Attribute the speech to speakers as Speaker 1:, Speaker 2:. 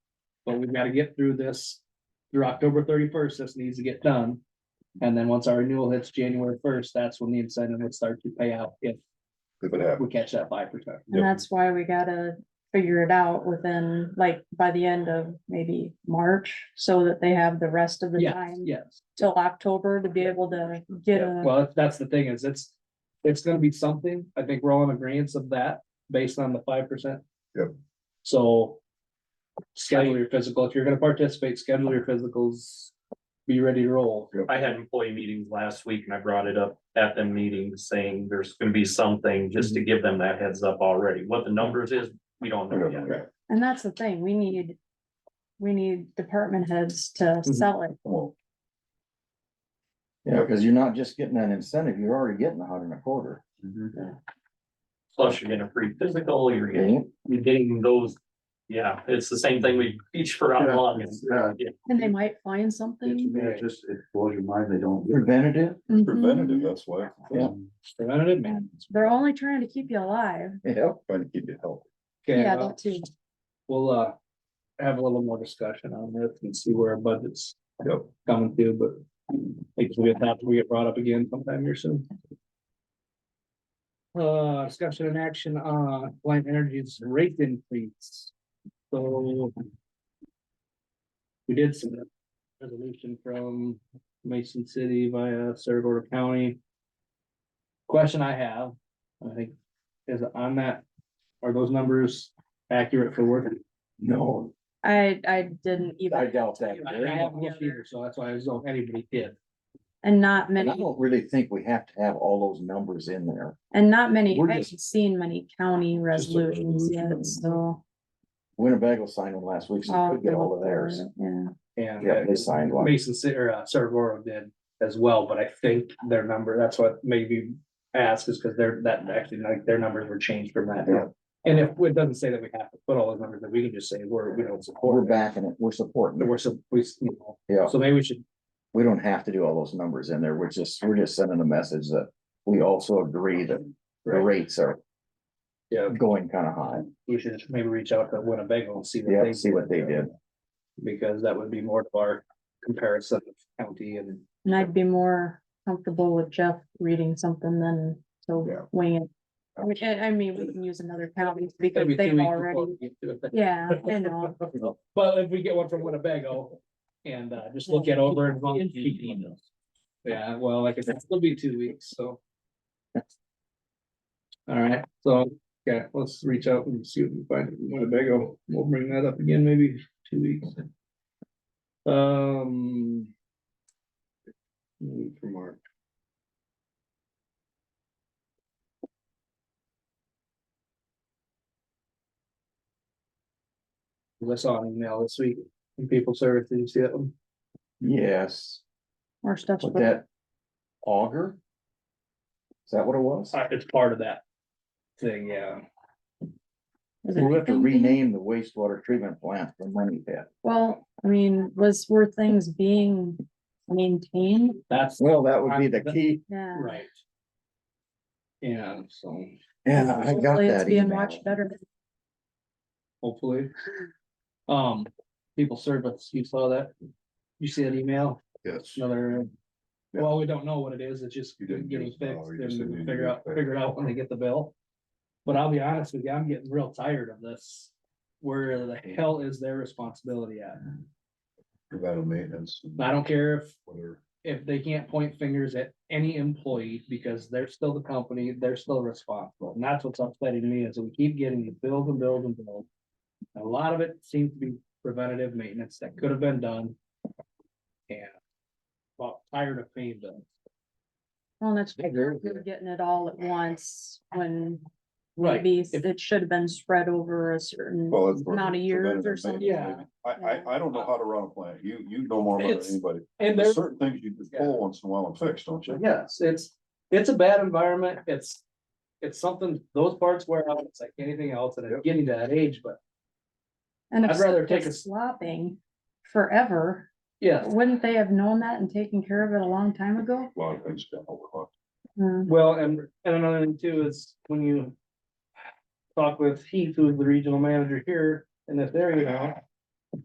Speaker 1: we've gotta get through this through October thirty-first, this needs to get done. And then once our renewal hits January first, that's when the incentive would start to pay out if
Speaker 2: if it happens.
Speaker 1: we catch that five percent.
Speaker 2: Yep.
Speaker 3: And that's why we gotta figure it out within, like, by the end of maybe March, so that they have the rest of the
Speaker 1: Yes,
Speaker 3: time Uh,
Speaker 1: yes.
Speaker 3: till October to be able to get
Speaker 1: Yeah,
Speaker 3: a,
Speaker 1: well, that's- that's the thing is it's, it's gonna be something. I think we're all in agreement of that based on the five percent.
Speaker 2: Yep.
Speaker 1: So. Schedule your physical. If you're gonna participate, schedule your physicals. Be ready to roll.
Speaker 4: I had employee meetings last week and I brought it up at the meeting saying there's gonna be something just to give them that heads up already. What the numbers is, we don't know yet.
Speaker 2: Yeah.
Speaker 3: and that's the thing, we need. We need department heads to
Speaker 5: Mm-hmm.
Speaker 3: sell it,
Speaker 5: Well. Yeah, because you're not just getting that incentive, you're already getting a hundred and a quarter.
Speaker 3: Mm-hmm.
Speaker 4: Plus you're getting a free physical, you're getting,
Speaker 5: ain't
Speaker 4: you're getting those. Yeah, it's the same thing we teach for how long. It's-
Speaker 6: Yeah.
Speaker 3: and they
Speaker 5: Mm-hmm.
Speaker 3: might find something. Mm-hmm.
Speaker 6: It just, it blows your mind, they don't. Mm-hmm.
Speaker 5: it? Preventative,
Speaker 2: Preventative, that's why,
Speaker 5: yeah,
Speaker 1: Preventative
Speaker 3: Mhm.
Speaker 1: maintenance.
Speaker 3: They're only trying to keep you alive,
Speaker 5: yeah,
Speaker 2: trying to keep you healthy.
Speaker 1: Okay,
Speaker 3: yeah,
Speaker 1: well,
Speaker 3: that too,
Speaker 1: we'll, uh, have a little more discussion on this and see where our budget's
Speaker 2: Yep.
Speaker 1: coming to, but. I think we'll have to, we get brought up again sometime here soon. Uh, discussion and action on Light Energy's rate increase, so. We did some resolution from Mason City via Saragordo County. Question I have, I think, is on that, are those numbers accurate for work?
Speaker 5: no,
Speaker 3: I, I didn't
Speaker 5: I
Speaker 3: even,
Speaker 5: doubt that.
Speaker 1: I haven't looked either, So that's why I was, oh, anybody did.
Speaker 3: and not
Speaker 5: And I
Speaker 3: many,
Speaker 5: don't really think we have to have all those numbers in there.
Speaker 3: and not many,
Speaker 5: We're
Speaker 3: I haven't seen many county resolutions
Speaker 5: resolution.
Speaker 3: yet, so.
Speaker 5: Winnebago signed them last week, so
Speaker 6: Oh,
Speaker 3: I'll
Speaker 5: we could get
Speaker 3: have to
Speaker 5: all of
Speaker 3: look for
Speaker 5: theirs.
Speaker 3: it, Yeah.
Speaker 1: And uh,
Speaker 5: Yeah, they signed one.
Speaker 1: Mason City or uh, Saragoro did as well, but I think their number, that's what maybe asked is because their, that actually, like, their numbers were changed from that.
Speaker 5: Yeah.
Speaker 1: And if, it doesn't say that we have to put all those numbers, that we can just say, we're, we don't
Speaker 5: We're
Speaker 1: support. it.
Speaker 5: backing it, we're supporting
Speaker 1: There
Speaker 5: it,
Speaker 1: were some, we, you know,
Speaker 5: yeah,
Speaker 1: so maybe we should,
Speaker 5: we don't have to do all those numbers in there, we're just, we're just sending a message that we also agree that the
Speaker 1: Right.
Speaker 5: rates are
Speaker 1: yeah,
Speaker 5: going kind of high,
Speaker 1: we should just maybe reach out to Winnebago and see what
Speaker 5: yeah,
Speaker 1: they.
Speaker 5: see what they did.
Speaker 1: Because that would be more of our comparison of county and.
Speaker 3: And I'd be more comfortable with Jeff reading something than
Speaker 5: Yeah.
Speaker 3: so wing it. I mean, I, I mean, we can use another county because
Speaker 1: Maybe two
Speaker 3: they've
Speaker 1: weeks before
Speaker 3: already,
Speaker 1: we get to it.
Speaker 3: yeah, I know.
Speaker 1: But if we get one from Winnebago and uh just look it over and. vote. Yeah, well, like I said, it'll be two weeks, so. All right, so, yeah, let's reach out and see what we find in Winnebago. We'll bring that up again maybe two weeks. Um. mm, From our. I saw an email this week from people service. Did you see that one?
Speaker 5: Yes.
Speaker 3: More stuff.
Speaker 5: With that auger? Is that what it was?
Speaker 1: Uh, It's part of that thing, yeah.
Speaker 5: We'll have to rename the wastewater treatment plant the money pit.
Speaker 3: Well, I mean, was, were things being maintained?
Speaker 1: That's
Speaker 5: Well, that would be the key.
Speaker 3: Yeah.
Speaker 1: right. Yeah, so
Speaker 5: Yeah, I got
Speaker 3: Hopefully it's
Speaker 5: that
Speaker 3: Being
Speaker 5: email.
Speaker 3: watched better.
Speaker 1: hopefully. Um, people service, you saw that? You see that email?
Speaker 2: Yes.
Speaker 1: Another.
Speaker 2: Yeah.
Speaker 1: Well, we don't know what it is. It's just
Speaker 2: You didn't
Speaker 1: getting
Speaker 2: use-
Speaker 1: fixed
Speaker 2: oh,
Speaker 1: and
Speaker 2: you just said you
Speaker 1: we'll
Speaker 2: didn't
Speaker 1: figure
Speaker 2: use
Speaker 1: out,
Speaker 2: that.
Speaker 1: figure it out when they get the bill. But I'll be honest with you, I'm getting real tired of this. Where the hell is their responsibility at?
Speaker 2: Preventative maintenance. and
Speaker 1: I don't care if
Speaker 2: Whatever.
Speaker 1: if they can't point fingers at any employee because they're still the company, they're still responsible. And that's what's upsetting me is we keep getting the bills and bills and bills. A lot of it seems to be preventative maintenance that could have been done. And about tired of paying bills.
Speaker 3: Well, that's
Speaker 5: I agree with
Speaker 3: we were
Speaker 5: you.
Speaker 3: getting it all at once when
Speaker 1: Right.
Speaker 3: maybe
Speaker 1: If-
Speaker 3: it should have been spread over a certain
Speaker 2: Well, it's.
Speaker 3: amount of years or something.
Speaker 1: Yeah.
Speaker 2: I, I, I don't know how to run a plant. You, you know more about it
Speaker 1: It's-
Speaker 2: than anybody.
Speaker 1: And
Speaker 2: There's
Speaker 1: there's,
Speaker 2: certain things you just pull once in a while and fix, don't you?
Speaker 1: yes, it's, it's a bad environment. It's, it's something, those parts wear out. It's like anything else and it's getting to that age, but
Speaker 3: And if
Speaker 1: I'd rather
Speaker 3: stuff
Speaker 1: take
Speaker 3: gets
Speaker 1: a-
Speaker 3: Slopping forever,
Speaker 1: yeah.
Speaker 3: wouldn't they have known that and taken care of it a long time ago?
Speaker 2: A lot of things. got overlooked.
Speaker 3: Mm,
Speaker 1: Well, and, and another thing too is when you talk with Heath, who's the regional manager here in this area now,